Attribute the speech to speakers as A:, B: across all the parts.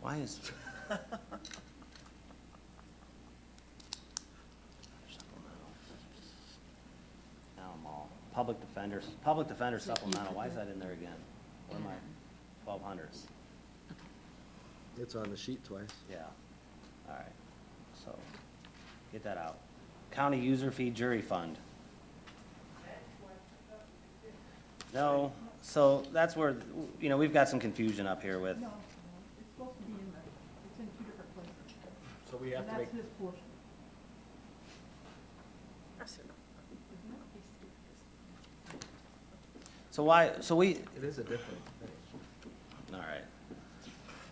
A: Why is? Now I'm all, public defenders, public defender
B: So you
A: supplemental,
B: put
A: why is
B: that-
A: that in there again? What am I, twelve hundreds?
C: It's on the sheet twice.
A: Yeah, all right, so, get that out. County user fee jury fund. No, so that's where, you know, we've got some confusion up here with,
D: No, no, it's supposed to be in there, it's in two different places.
C: So we
D: And that's his portion.
A: so why, so we,
C: It is a different thing.
A: all right.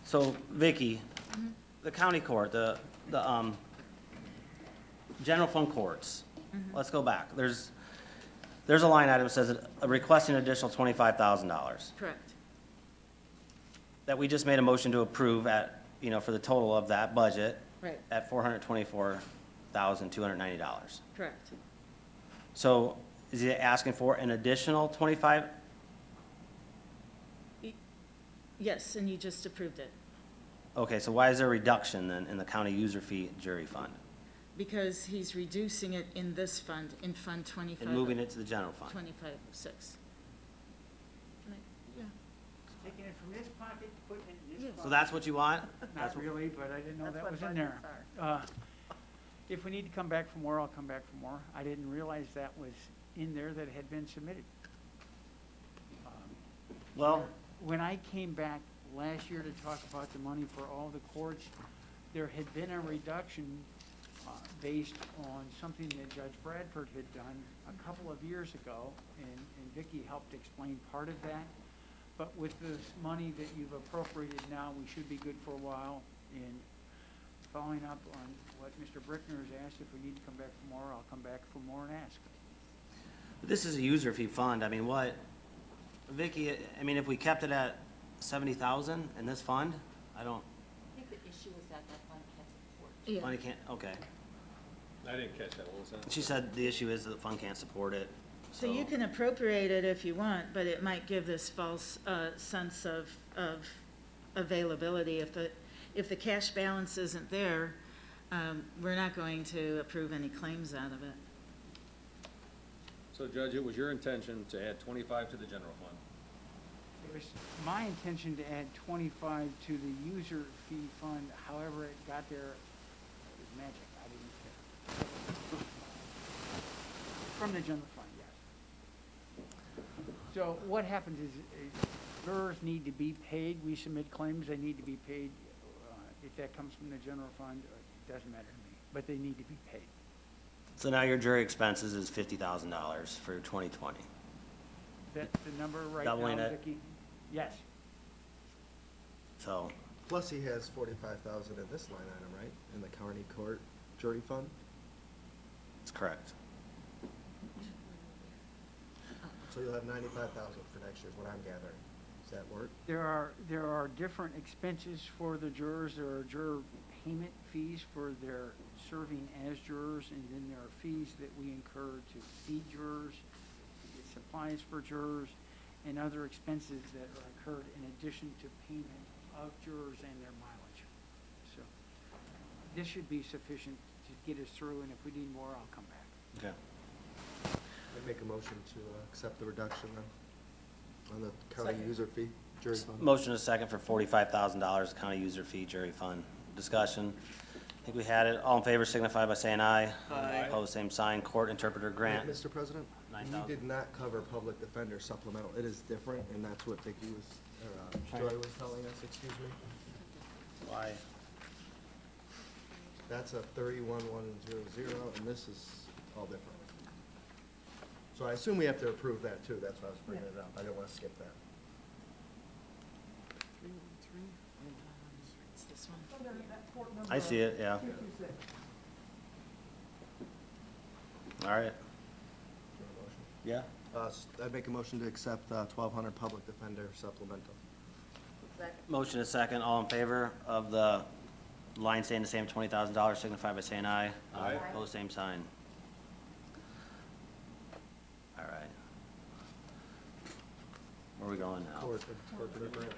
A: So Vicky, the county court, the, the, um, general fund courts, let's go back. There's, there's a line item that says uh, requesting additional twenty-five thousand dollars.
B: Correct.
A: that we just made a motion to approve at, you know, for the total of that budget.
B: Right.
A: At four hundred twenty-four thousand, two hundred ninety dollars.
B: Correct.
A: So is he asking for an additional twenty-five?
B: Y- Yes, and you just approved it,
A: Okay, so why is there a reduction then in the county user fee jury fund?
B: because he's reducing it in this fund, in Fund oh 25.
A: And moving it to the general fund?
B: 2506.
E: Taking it from this pocket, putting it in this
B: Yes.
E: pocket.
A: So that's what you want?
E: Not really, but I didn't know that was in there. Uh, If we need to come back for more, I'll come back for more. I didn't realize that was in there that had been submitted. Um,
A: Well,
E: When I came back last year to talk about the money for all the courts, there had been a reduction uh, based on something that Judge Bradford had done a couple of years ago, and and Vicki helped explain part of that. But with this money that you've appropriated now, we should be good for a while. And following up on what Mr. Brickner has asked, if we need to come back for more, I'll come back for more and ask.
A: this is a user fee fund. I mean, what, Vicky, I mean, if we kept it at seventy thousand in this fund, I don't,
F: I think the issue was that that one kept report.
A: money can't, okay.
G: I didn't catch that, what was that?
A: She said the issue is that the fund can't support it,
B: So you can appropriate it if you want, but it might give this false uh, sense of, of availability. If the, if the cash balance isn't there, um, we're not going to approve any claims out of it.
G: So Judge, it was your intention to add twenty-five to the general fund?
E: It was my intention to add twenty-five to the user fee fund, however it got there, it was magic, I didn't care. From the general fund, yes. So what happens is, is jurors need to be paid, we submit claims, they need to be paid. uh, If that comes from the general fund, uh, it doesn't matter to me, but they need to be paid.
A: So now your jury expenses is fifty thousand dollars for twenty twenty.
E: That's the number right now,
A: Doubling it.
E: Vicki? Yes,
A: So,
C: Plus he has forty-five thousand in this line item, right? In the county court jury fund?
A: it's correct.
C: So you'll have ninety-five thousand for next year, is what I'm gathering. Does that work?
E: There are, there are different expenses for the jurors. There are juror payment fees for their serving as jurors, and then there are fees that we incur to feed jurors, to get supplies for jurors, and other expenses that are incurred in addition to payment of jurors and their mileage. So this should be sufficient to get us through, and if we need more, I'll come back.
A: Okay.
C: I make a motion to uh, accept the reduction on, on the county
E: Second.
C: user fee jury fund.
A: Motion is second for forty-five thousand dollars county user fee jury fund. Discussion. I think we had it. All in favor signify by saying aye. Aye. Opposed, same sign. Court interpreter grant.
C: Mr. President,
A: Nine
C: you
A: thousand.
C: did not cover public defender supplemental. It is different, and that's what Vicky was, or, uh, Joy was telling us, excuse me.
A: Why?
C: That's a thirty-one, one, zero, zero, and this is all different. So I assume we have to approve that too, that's why I was bringing it up, I didn't wanna skip that.
B: It's this one.
D: So there's that court number.
A: I see it, yeah.
D: 226.
A: All right.
C: Do you want a
A: Yeah.
C: motion? Uh, s- I'd make a motion to accept, uh, twelve hundred public defender supplemental.
A: Motion is second. All in favor of the line staying the same, twenty thousand dollars signify by saying aye.
G: Aye.
A: Opposed, same sign. All right. Where are we going now?
C: Court- court- court-